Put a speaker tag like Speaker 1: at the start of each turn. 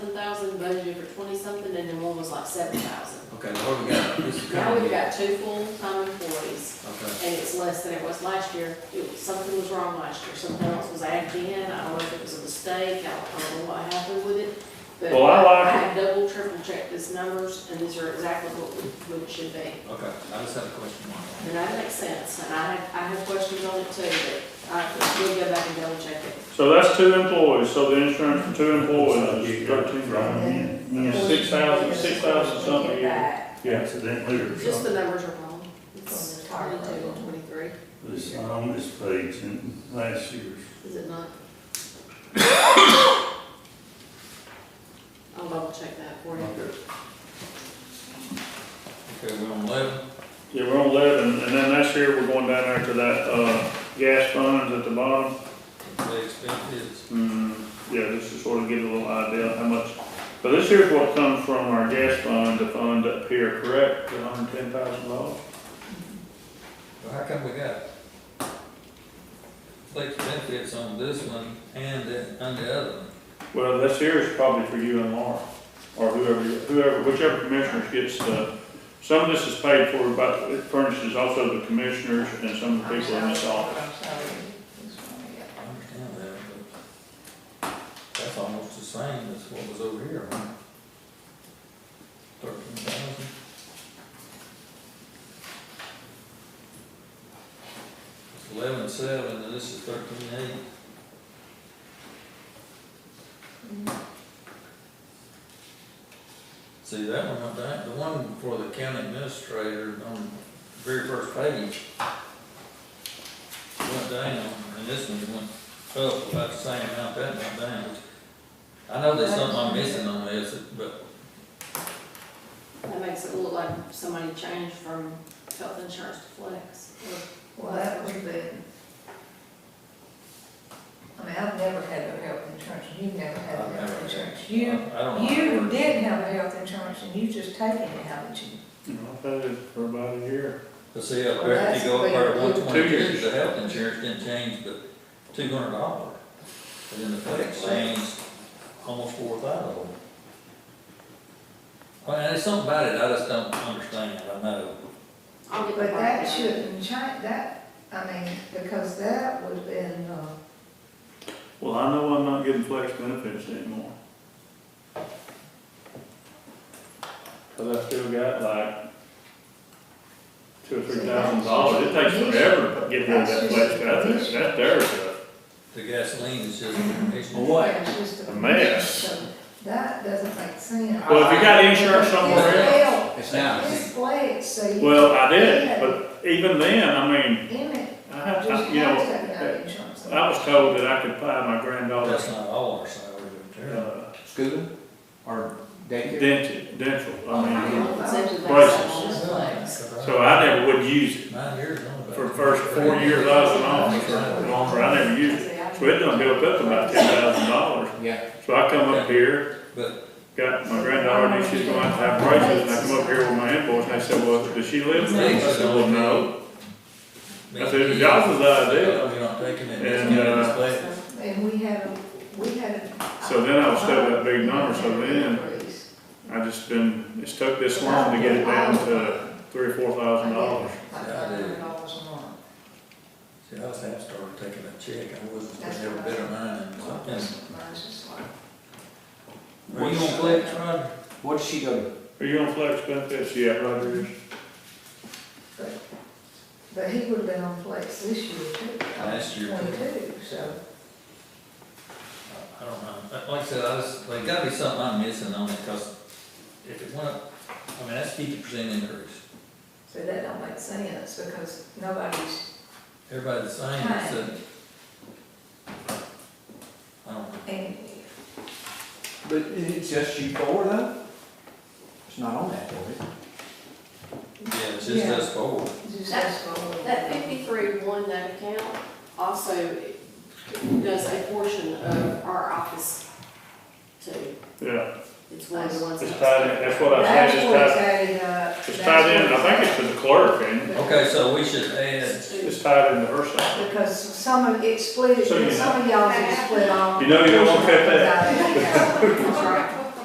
Speaker 1: thousand budgeted for twenty-something, and then one was like seven thousand.
Speaker 2: Okay, now what we got? This is
Speaker 1: Now
Speaker 2: coming.
Speaker 1: we've got two full-time employees,
Speaker 2: Okay,
Speaker 1: and it's less than it was last year. It was- Something was wrong last year, something else was added in, I don't know if it was a mistake, I don't know what happened with it. But
Speaker 3: Well, I like-
Speaker 1: I double, triple checked these numbers, and these are exactly what we- what it should be.
Speaker 2: okay, I just had a question mark on
Speaker 1: And that makes sense, and I have, I have questions on it too, but I, we'll go back and double check it.
Speaker 3: So that's two employees, so the insurance for two employees is thirteen grand.
Speaker 4: Yeah,
Speaker 3: Six thousand, six thousand something a year.
Speaker 4: accidentally or
Speaker 1: Just the
Speaker 4: something.
Speaker 1: numbers are wrong. It's twenty-two and twenty-three,
Speaker 4: It's not on this page in last year's.
Speaker 1: is it not? I'll double check that for
Speaker 2: it.
Speaker 1: you.
Speaker 2: Okay. Okay, we're on eleven.
Speaker 3: Yeah, we're on eleven, and then next year we're going down there to that, uh, gas funds at the bottom.
Speaker 2: They expect it's
Speaker 3: Hmm, yeah, just to sort of get a little idea how much, but this here's what comes from our gas fund, the fund up here, correct? The hundred ten thousand dollars?
Speaker 2: Well, how come we got flex benefits on this one and the- on the other one?
Speaker 3: Well, this here is probably for you and Laura, or whoever, whoever, whichever commissioners gets the, some of this is paid for by, it furnishes also the commissioners and some of the people in this office.
Speaker 2: I understand that, but that's almost the same as what was over here, huh? Thirteen thousand? It's eleven seven, and this is thirteen eight. See, that one, up there, the one for the county administrator on the very first page went down, and this one went up about the same amount, that went down. I know there's something I'm missing on this, but,
Speaker 1: That makes it look like somebody changed from health insurance to flex.
Speaker 5: Well, that was the, I mean, I've never had no health insurance, and you've never had
Speaker 2: I've
Speaker 5: no
Speaker 2: never-
Speaker 5: health insurance.
Speaker 2: I
Speaker 5: You,
Speaker 2: I don't.
Speaker 5: you did have a health insurance, and you just taken it, haven't you?
Speaker 3: You know, I've had it for about a year.
Speaker 2: But see, up there, if you go up there at one
Speaker 3: Two
Speaker 2: twenty-two,
Speaker 3: years.
Speaker 2: the health insurance didn't change but two hundred dollars. But then the flex changed almost four thousand. Well, and there's something about it I just don't understand, I know.
Speaker 1: I'll get the
Speaker 5: But that
Speaker 1: breakdown.
Speaker 5: shouldn't change, that, I mean, because that would have been, uh,
Speaker 3: Well, I know I'm not getting flex benefits anymore. Cause I still got like two or three thousand dollars, it takes forever to get rid of that flex benefit, that's their stuff.
Speaker 2: The gasoline is just, it's.
Speaker 5: yeah, it's just
Speaker 3: A mess.
Speaker 5: So That doesn't make sense.
Speaker 3: Well, if you got insurance somewhere else,
Speaker 5: else.
Speaker 6: It's now,
Speaker 5: It's flat, so you.
Speaker 3: well, I did, but even then, I mean,
Speaker 5: In it,
Speaker 3: I,
Speaker 5: just
Speaker 3: I-
Speaker 5: have
Speaker 3: you know,
Speaker 5: taken out insurance.
Speaker 3: I was told that I could buy my
Speaker 2: That's
Speaker 3: granddaughter's,
Speaker 2: not all our salary, but there.
Speaker 3: uh,
Speaker 6: school or daycare?
Speaker 3: dental, dental,
Speaker 1: I
Speaker 3: I mean,
Speaker 1: don't know, it's actually
Speaker 3: Prices.
Speaker 1: flex.
Speaker 3: so I never would use it.
Speaker 2: Nine years on about.
Speaker 3: For the first four years I was in office, or longer, I never used it. So it done built up about ten thousand dollars.
Speaker 6: Yeah,
Speaker 3: So I come up here,
Speaker 2: But,
Speaker 3: got my granddaughter, and she's going out to have braces, and I come up here with my invoice, and they said, well, does she live in Memphis? I said, well, no. I said, "If y'all was the idea."
Speaker 2: We're not taking it, it's
Speaker 3: And,
Speaker 2: getting
Speaker 3: uh,
Speaker 2: displayed.
Speaker 5: And we had, a- we had. a-
Speaker 3: So then I was stuck with that big number, so then I just been, it's took this long to get it down to three or four thousand dollars.
Speaker 5: Like $500 a month.
Speaker 2: See, I was half started taking a check, I wasn't, I never bit of mine, and something.
Speaker 5: Mine's just like-
Speaker 2: Were you on flex, Roger?
Speaker 6: what does she go to?
Speaker 3: Are you on flex benefits yet, Rogers?
Speaker 5: But he would have been on flex this year too.
Speaker 2: Last year.
Speaker 5: Twenty-two, so.
Speaker 2: I don't know, But like I said, I just, like, gotta be something I'm missing on it, cause if it went up, I mean, that's fifty percent increase.
Speaker 5: So that don't make sense because nobody's
Speaker 2: Everybody the same, it's a. I don't know.
Speaker 5: paying.
Speaker 6: But it's just you four though? It's not on that, is it?
Speaker 2: Yeah, it's just us four.
Speaker 5: Just
Speaker 1: That-
Speaker 5: as well.
Speaker 1: That fifty-three one, that account also does a portion of our office too.
Speaker 3: Yeah,
Speaker 1: It's one of the ones.
Speaker 3: it's
Speaker 1: that-
Speaker 3: tied in, that's what I
Speaker 5: That's
Speaker 3: said, it's
Speaker 5: what it's
Speaker 3: tied,
Speaker 5: added up.
Speaker 3: it's tied in, I think it's to the clerk, and
Speaker 2: Okay, so we should add,
Speaker 1: It's two.
Speaker 3: it's tied into her salary.
Speaker 5: Because some of it split,
Speaker 3: So you know.
Speaker 5: some of y'all is split off.
Speaker 3: You know you don't want to cut that.
Speaker 1: That's right.